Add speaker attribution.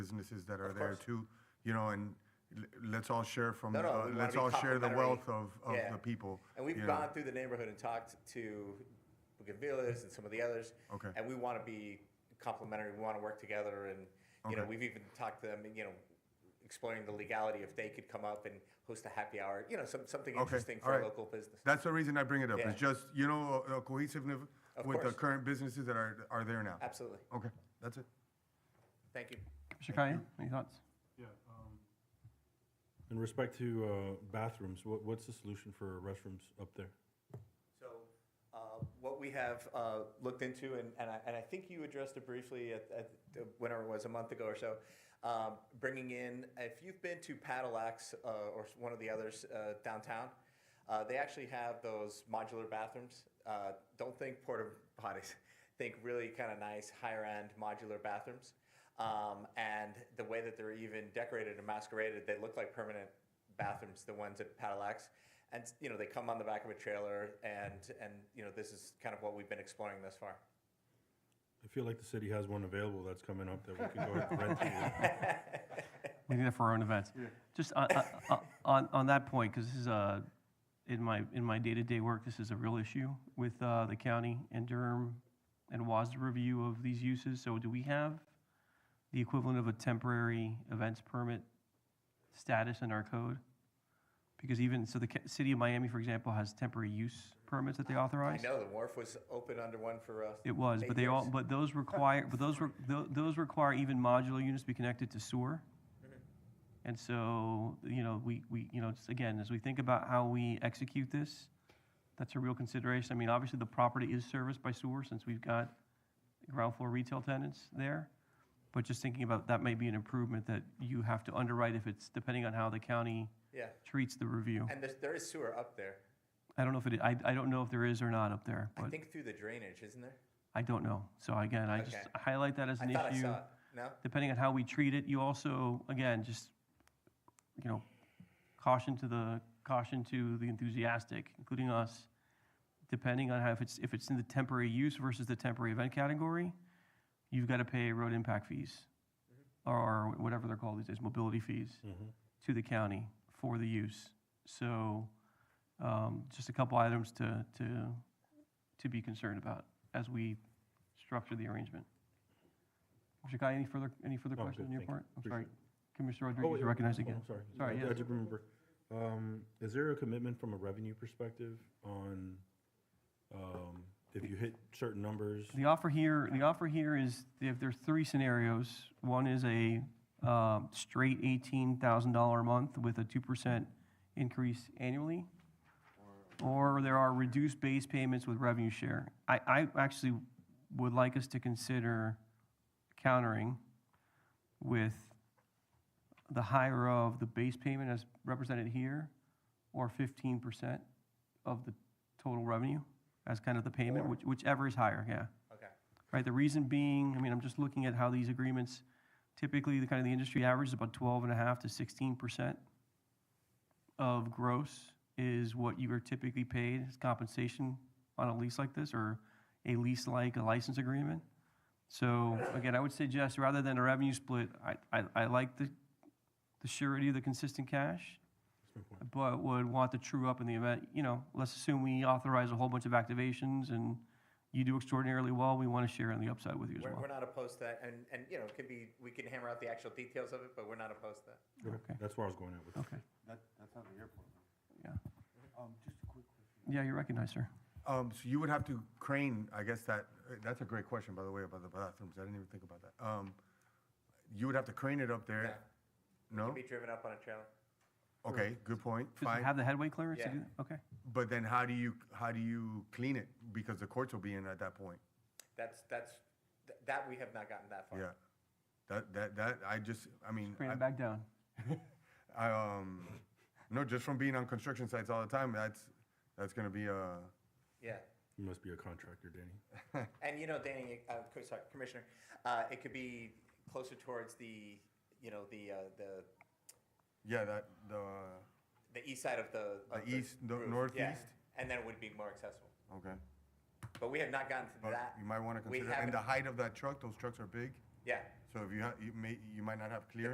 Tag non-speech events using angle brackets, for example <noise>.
Speaker 1: businesses that are there
Speaker 2: course.
Speaker 1: too, you know, and l- let's all share from,
Speaker 2: No, no,
Speaker 1: uh,
Speaker 2: we wanna
Speaker 1: let's
Speaker 2: be
Speaker 1: all share the
Speaker 2: complimentary.
Speaker 1: wealth of, of
Speaker 2: Yeah.
Speaker 1: the people.
Speaker 2: And we've
Speaker 1: you know.
Speaker 2: gone through the neighborhood and talked to Bucavillas and some of the others.
Speaker 1: Okay.
Speaker 2: And we want to be complimentary. We want to work together, and you know,
Speaker 1: Okay.
Speaker 2: we've even talked to them. You know, exploring the legality if they could come up and host a happy hour. You know, some, something
Speaker 1: Okay,
Speaker 2: interesting
Speaker 1: all
Speaker 2: for
Speaker 1: right.
Speaker 2: a local business.
Speaker 1: That's the reason I bring it up,
Speaker 2: Yeah.
Speaker 1: it's just, you know, a- a cohesiveness
Speaker 2: Of
Speaker 1: with the
Speaker 2: course.
Speaker 1: current businesses that are, are there now.
Speaker 2: Absolutely.
Speaker 1: Okay, that's it.
Speaker 2: Thank you.
Speaker 3: Mr. Kaya, any thoughts?
Speaker 4: Yeah. um, In respect to uh, bathrooms, what, what's the solution for restrooms up there?
Speaker 2: So, uh, what we have uh, looked into, and, and, I, and I think you addressed it briefly at, at the- whenever it was, a month ago or so, um, bringing in, if you've been to Padillacs uh, or s- one of the others uh, downtown, uh, they actually have those modular bathrooms. Uh, don't think porta potties, <laughs> think really kind of nice, higher end modular bathrooms. Um, and the way that they're even decorated and masqueraded, they look like permanent bathrooms, the ones at Padillacs. And, you know, they come on the back of a trailer and, and, you know, this is kind of what we've been exploring thus
Speaker 3: <laughs>
Speaker 2: far.
Speaker 4: I feel like the city has one available that's coming up that we could go ahead
Speaker 3: <laughs>
Speaker 4: and rent. to.
Speaker 3: We do that for our own events. Just on, on- on, on that point, because this is a, in my, in my day-to-day work, this is a real issue with uh, the county and Durham and WASDA review of these uses. So do we have the equivalent of a temporary events permit status in our code? Because even, so the ca- city of Miami, for example, has temporary use permits that they
Speaker 2: I
Speaker 3: authorize?
Speaker 2: know the wharf was open under one for us.
Speaker 3: It was, but they all, but those require,
Speaker 2: <laughs>
Speaker 3: but those, re- tho- those require even modular units to be connected to sewer.
Speaker 2: Mm-hmm.
Speaker 3: And so, you know, we, we, you know, it's- again, as we think about how we execute this, that's a real consideration. I mean, obviously, the property is serviced by sewer since we've got ground floor retail tenants there. But just thinking about, that may be an improvement that you have to underwrite if it's, depending on how the county
Speaker 2: Yeah,
Speaker 3: treats the review.
Speaker 2: and there's, there is sewer up there.
Speaker 3: I don't know if it, I, I don't know if there is or not up there,
Speaker 2: I
Speaker 3: but
Speaker 2: think through the drainage, isn't there?
Speaker 3: I don't know. So again, I just
Speaker 2: Okay.
Speaker 3: highlight that as an
Speaker 2: I
Speaker 3: issue.
Speaker 2: thought I saw it. No?
Speaker 3: depending on how we treat it, you also, again, just, you know, caution to the, caution to the enthusiastic, including us, depending on how, if it's, if it's in the temporary use versus the temporary event category, you've got to pay road impact fees, or whatever they're called these days, mobility fees,
Speaker 4: Mm-hmm.
Speaker 3: to the county for the use. So, um, just a couple items to, to, to be concerned about as we structure the arrangement. Mr. Guy, any further, any further
Speaker 4: No, I'm
Speaker 3: questions on
Speaker 4: good,
Speaker 3: your
Speaker 4: thank you.
Speaker 3: part? I'm
Speaker 4: Appreciate
Speaker 3: sorry.
Speaker 4: it.
Speaker 3: Commissioner
Speaker 4: Oh,
Speaker 3: Rodriguez,
Speaker 4: wait,
Speaker 3: you're recognized
Speaker 4: oh,
Speaker 3: again.
Speaker 4: I'm sorry.
Speaker 3: Sorry,
Speaker 4: I- I
Speaker 3: yes.
Speaker 4: did remember. Um, Is there a commitment from a revenue perspective on, um, if you hit certain numbers?
Speaker 3: The offer here, the offer here is, if there's three scenarios, one is a um, straight eighteen thousand dollar a month with a two percent increase annually, or there are reduced base payments with revenue share. I, I actually would like us to consider countering with the higher of the base payment as represented here, or fifteen percent of the total revenue as kind of the payment, which- whichever is higher, yeah.
Speaker 2: Okay.
Speaker 3: Right, the reason being, I mean, I'm just looking at how these agreements, typically, the kind of the industry average is about twelve and a half to sixteen percent of gross is what you are typically paid as compensation on a lease like this, or a lease like a license agreement. So again, I would suggest, rather than a revenue split, I, I, I like the, the surety of the consistent cash, but would want the true up in the event, you know, let's assume we authorize a whole bunch of activations and you do extraordinarily well, we want to share in the upside with you as
Speaker 2: We're,
Speaker 3: well.
Speaker 2: we're not opposed to that, and, and, you know, it could be, we can hammer out the actual details of it, but we're not opposed to that.
Speaker 3: Okay,
Speaker 4: That's where I was going at with
Speaker 3: okay,
Speaker 5: That, that's not the airport.
Speaker 3: yeah.
Speaker 5: Um, just a quick question.
Speaker 3: Yeah, you're recognized, sir.
Speaker 1: Um, so you would have to crane, I guess that, uh, that's a great question, by the way, about the bathrooms, I didn't even think about that. Um, you would have to crane it up there, no?
Speaker 2: It'd be driven up on a trailer.
Speaker 1: Okay, good point,
Speaker 3: Does it
Speaker 1: fine,
Speaker 3: have the headway clearance to
Speaker 2: Yeah.
Speaker 3: do that? Okay.
Speaker 1: but then how do you, how do you clean it? Because the courts will be in at that point.
Speaker 2: That's, that's, th- that we have not gotten that far.
Speaker 1: Yeah. That, that, that, I just, I mean,
Speaker 3: Bring
Speaker 1: I-
Speaker 3: it back down.
Speaker 1: I, um, no, just from being on construction sites all the time, that's, that's gonna be, uh,
Speaker 2: Yeah.
Speaker 4: You must be a contractor, Danny.
Speaker 2: And you know, Danny, uh, co- sorry, Commissioner, uh, it could be closer towards the, you know, the, uh, the,
Speaker 1: yeah, that, the,
Speaker 2: the east side of the. of
Speaker 1: The east, the
Speaker 2: roof, yeah.
Speaker 1: northeast?
Speaker 2: And then it would be more accessible.
Speaker 1: okay.
Speaker 2: But we have not gotten to
Speaker 1: But
Speaker 2: that.
Speaker 1: you might wanna
Speaker 2: We
Speaker 1: consider, and the
Speaker 2: haven't-
Speaker 1: height of that truck, those trucks are big,
Speaker 2: Yeah,
Speaker 1: So if you, ha- you may, you might not have clearance.